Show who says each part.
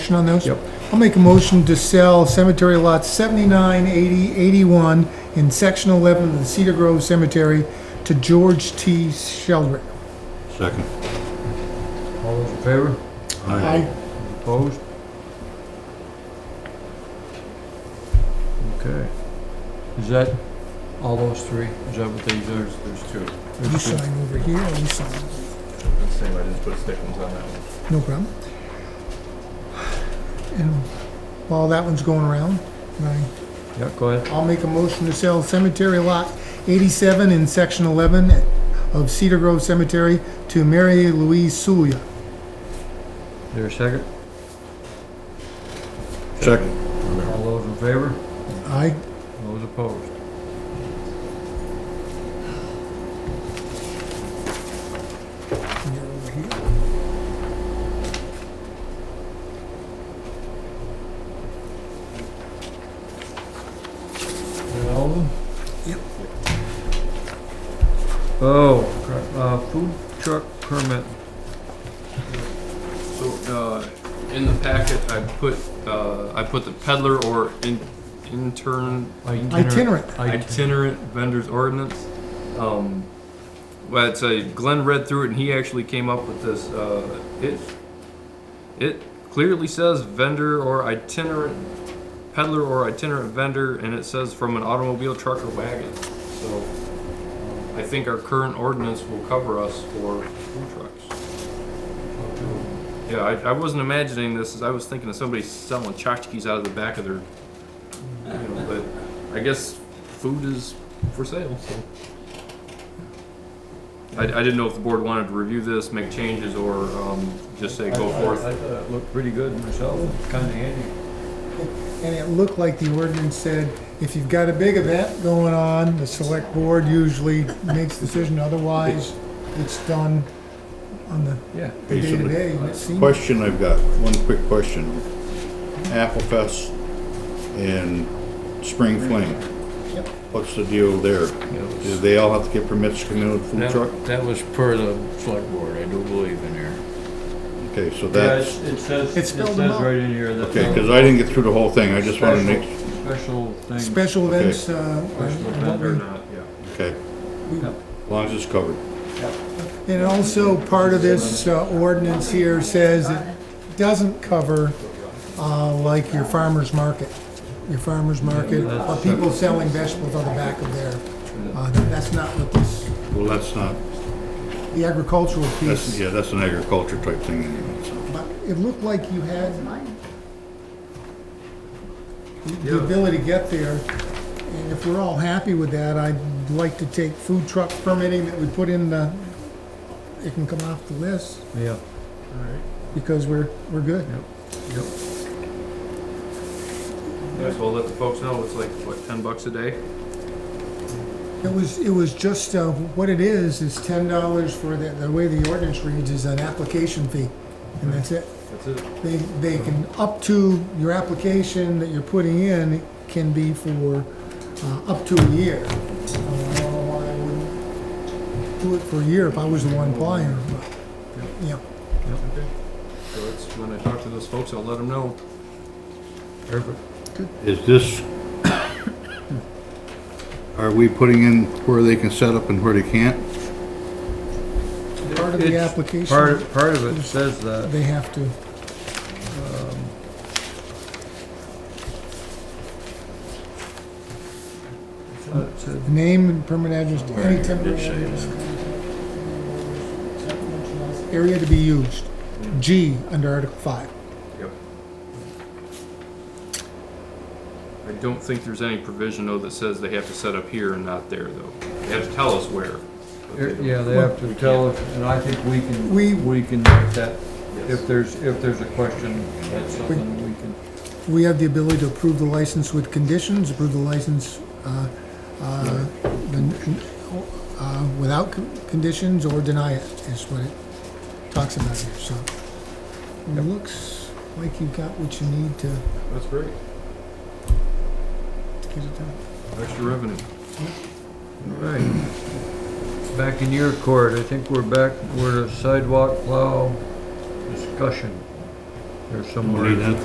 Speaker 1: Motion on those? Yep. I'll make a motion to sell cemetery lots 79, 80, 81 in section 11 of the Cedar Grove Cemetery to George T. Sheldrick.
Speaker 2: Second.
Speaker 3: All those in favor? Opposed? Okay. Is that all those three? Is that what they, there's, there's two.
Speaker 1: You sign over here, or you sign,
Speaker 4: That's the same, I didn't put stickers on that one.
Speaker 1: no problem. And while that one's going around, can I
Speaker 3: Yeah, go ahead.
Speaker 1: I'll make a motion to sell cemetery lot 87 in section 11 of Cedar Grove Cemetery to Mary Louise Suya.
Speaker 3: There a second?
Speaker 2: Second.
Speaker 3: All those in favor?
Speaker 1: Aye.
Speaker 3: Those opposed?
Speaker 1: And you're over here.
Speaker 3: Is that all of them?
Speaker 1: Yep.
Speaker 3: Oh, cr- uh, food truck permit.
Speaker 4: So, uh, in the packet, I put, uh, I put the peddler or in, intern,
Speaker 1: Itinerant.
Speaker 4: itinerant vendors ordinance. Um, well, it's a, Glenn read through it and he actually came up with this, uh, it, it clearly says vendor or itinerant, peddler or itinerant vendor, and it says from an automobile, truck or wagon. So, um, I think our current ordinance will cover us for food trucks. Yeah, I, I wasn't imagining this, I was thinking of somebody selling tchotchkes out of the back of their, you know, but I guess food is for sale, so. I, I didn't know if the board wanted to review this, make changes, or, um, just say go
Speaker 3: I-
Speaker 4: forth.
Speaker 3: I thought it looked pretty good myself, kinda handy.
Speaker 1: And it looked like the ordinance said, if you've got a big event going on, the select board usually makes decision, otherwise it's done on the
Speaker 3: Yeah.
Speaker 1: the day-to-day. and it seemed-
Speaker 2: Question I've got, one quick question. Applefest and Spring Fling.
Speaker 1: Yep.
Speaker 2: What's the deal there? Do they all have to get permits to come in with food
Speaker 5: That-
Speaker 2: truck?
Speaker 5: That was per the select board, I do believe in here.
Speaker 2: Okay, so
Speaker 3: Yeah, it
Speaker 2: that's,
Speaker 3: it says, it
Speaker 1: It's
Speaker 3: says
Speaker 1: spelled them out.
Speaker 3: right in here that.
Speaker 2: okay, because I didn't get through the whole thing, I just wanted to make,
Speaker 3: Special thing,
Speaker 1: Special events, uh, are-
Speaker 3: special
Speaker 1: are what
Speaker 3: event or
Speaker 1: we-
Speaker 3: not, yeah.
Speaker 2: okay. As long as it's covered.
Speaker 1: And also, part of this uh, ordinance here says it doesn't cover, uh, like your farmer's market. Your farmer's market, or people selling vegetables on the back of their, uh, that's not what this,
Speaker 2: Well, that's not,
Speaker 1: the agricultural
Speaker 2: that's,
Speaker 1: piece.
Speaker 2: yeah, that's an agriculture type thing anyway, so.
Speaker 1: But it looked like you had the- the ability to get there. And if we're all happy with that, I'd like to take food truck permitting that we put in the, it can come off the list
Speaker 3: Yeah,
Speaker 1: because we're, we're good.
Speaker 3: yep.
Speaker 4: Yeah, so I'll let the folks know, it's like, what, ten bucks a day?
Speaker 1: It was, it was just, uh, what it is, is ten dollars for the, the way the ordinance reads is an application fee. And that's it.
Speaker 4: That's it.
Speaker 1: They, they can, up to your application that you're putting in can be for, uh, up to a year. Uh, I don't know why I wouldn't Do it for a year if I was the one applying, but, yeah.
Speaker 4: Okay. So it's, when I talk to those folks, I'll let them know.
Speaker 3: Perfect.
Speaker 2: Is this, are we putting in where they can set up and where they can't?
Speaker 1: Part of the
Speaker 3: It's-
Speaker 1: application,
Speaker 3: Part, part of it says that,
Speaker 1: they have to,
Speaker 3: uh, it said-
Speaker 1: um, name and permanent address, to any
Speaker 5: Did
Speaker 1: temporary
Speaker 5: say
Speaker 1: address.
Speaker 5: that.
Speaker 1: Area to be used, G, under Article five.
Speaker 4: I don't think there's any provision though that says they have to set up here and not there though. They have to tell us where. but they don't.
Speaker 3: yeah, they have to tell us, and I think we can,
Speaker 1: We-
Speaker 3: we can make that,
Speaker 4: Yes.
Speaker 3: if there's, if there's a question, that's something we can.
Speaker 1: We have the ability to approve the license with conditions, approve the license uh, uh, the- uh, without con- conditions, or deny it, is what it talks about here, so. It looks like you've got what you need to
Speaker 4: That's great.
Speaker 1: get it done.
Speaker 4: Extra revenue.
Speaker 3: Right. Back in your court, I think we're back, we're to sidewalk plow discussion.
Speaker 6: There's
Speaker 3: We'll
Speaker 6: somewhere.
Speaker 3: need that